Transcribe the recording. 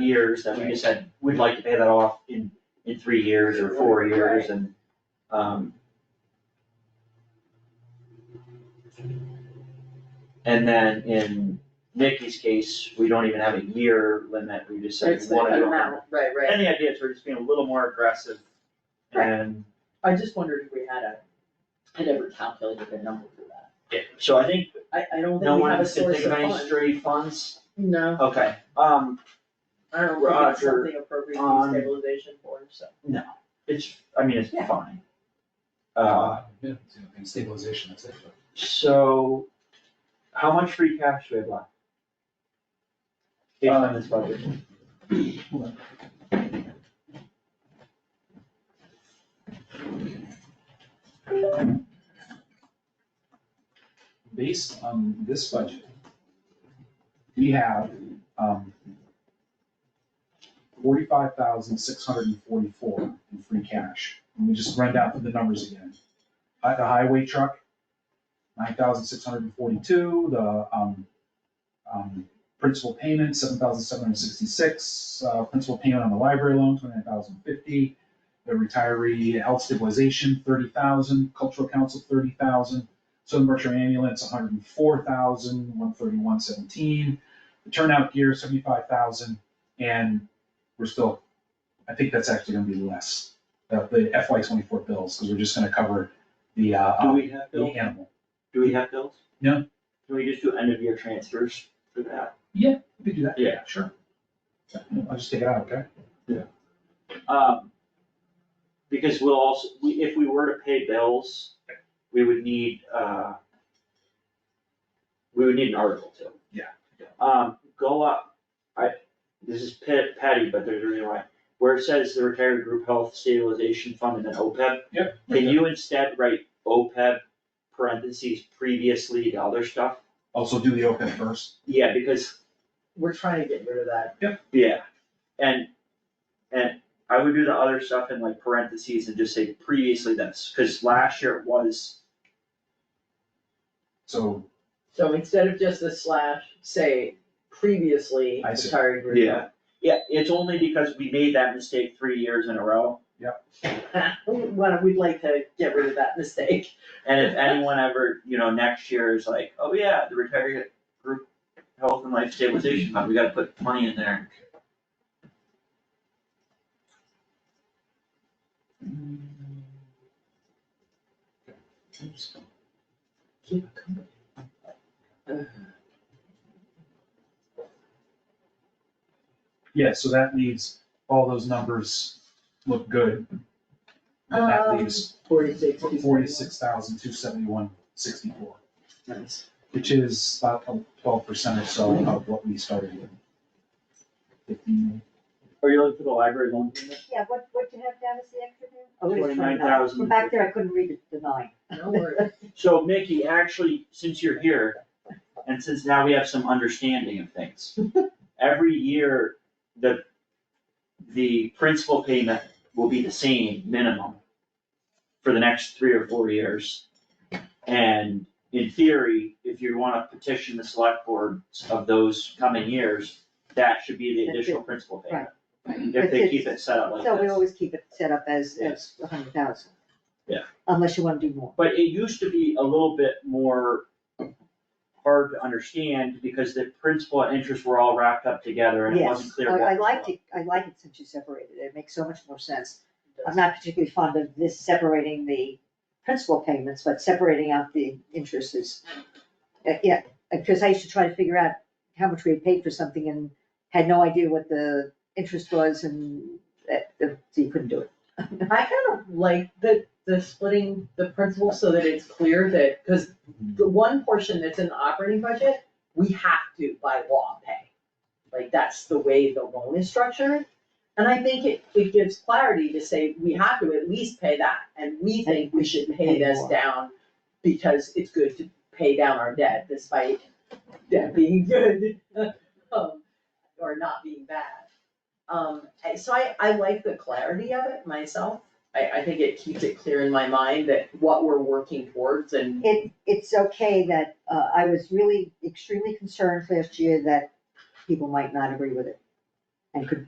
years that we just said, we'd like to pay that off in, in three years or four years and, um. And then in Nikki's case, we don't even have a year limit, we just said It's we the wanna do it. amount, right, right. And the idea is we're just being a little more aggressive Right. and I just wondered if we had a, had ever calculated a number for that. Yeah, so I think I, I don't no think we one have a else can source think of of any funds. stray funds, No, okay, um, I don't think it's Roger, something appropriate on- for stabilization for, so. it's, I mean, it's Yeah. fine. Uh, Yeah, it's, you know, and stabilization, that's it. so, how much free cash do we have left? Based on this budget, Based on this budget, we have, um, forty-five thousand, six hundred and forty-four in free cash. Let me just run down through the numbers again. Uh, the highway truck, nine thousand, six hundred and forty-two, the, um, um, principal payment, seven thousand, seven hundred and sixty-six, uh, principal payment on the library loan, twenty-nine thousand, fifty. The retiree health stabilization, thirty thousand, cultural council, thirty thousand, Southern Berkshire ambulance, one hundred and four thousand, one thirty-one seventeen. The turnout gear, seventy-five thousand, and we're still, I think that's actually gonna be less. The, the FY twenty-four bills, because we're just gonna cover the, uh, do uh, we have the bills, animal. do we have bills? No. Can we just do end of year transfers for that? We could do that. Yeah. Sure. I'll just take it out, okay? Um, because we'll also, we, if we were to pay bills, we would need, uh, we would need an article too. Yeah. Um, go up, I, this is pet- petty, but there's a reason why, where it says the retired group health stabilization fund and then OPEB. Yep. Can you instead write OPEB parentheses previously to other stuff? Also do the OPEB first. Yeah, because, We're trying to get rid of that. yeah, and, and I would do the other stuff in like parentheses and just say previously this, cause last year it was, So, So instead of just the slash, say previously I see. retired group. yeah. Yeah, it's only because we made that mistake three years in a row, Well, we'd like to get rid of that mistake. and if anyone ever, you know, next year is like, oh yeah, the retiree group health and life stabilization fund, we gotta put money in there. Keep it coming. yeah, so that leaves, all those numbers look good. And that Um, leaves Forty-six. two forty-six thousand, two seventy-one, sixty-four. seventy-one. Nice. which is about twelve percent or so of what we started with. Fifteen, Are you looking for the library loan payment? Yeah, what, what you have down is the extra bit? Oh, I was trying Twenty-nine to- thousand. From back there, I couldn't read the line. No worries. So Mickey, actually, since you're here, and since now we have some understanding of things, every year, the, the principal payment will be the same minimum for the next three or four years. And in theory, if you wanna petition the select boards of those coming years, that should be the additional principal payment. If they keep it set up like So we this. always keep it set up as, as a hundred thousand. Yeah. Unless you wanna do more. But it used to be a little bit more hard to understand because the principal and interest were all wrapped up together and it wasn't Yes, clear what. I, I was liked what. it, I like it since you separated it, it makes so much more sense. I'm not particularly fond of this separating the principal payments, but separating out the interest is, uh, yeah, because I used to try to figure out how much we had paid for something and had no idea what the interest was and that, that- so you couldn't do it. I kind of like the, the splitting the principal so that it's clear that, because the one portion that's in the operating budget, we have to by law pay. Like, that's the way the loan is structured. And I think it, it gives clarity to say, we have to at least pay that, and we think we should pay this more. down because it's good to pay down our debt despite debt being good, um, or not being bad. Um, and so I, I like the clarity of it myself. I, I think it keeps it clear in my mind that what we're working towards and It, it's okay that, uh, I was really extremely concerned last year that people might not agree with it. and could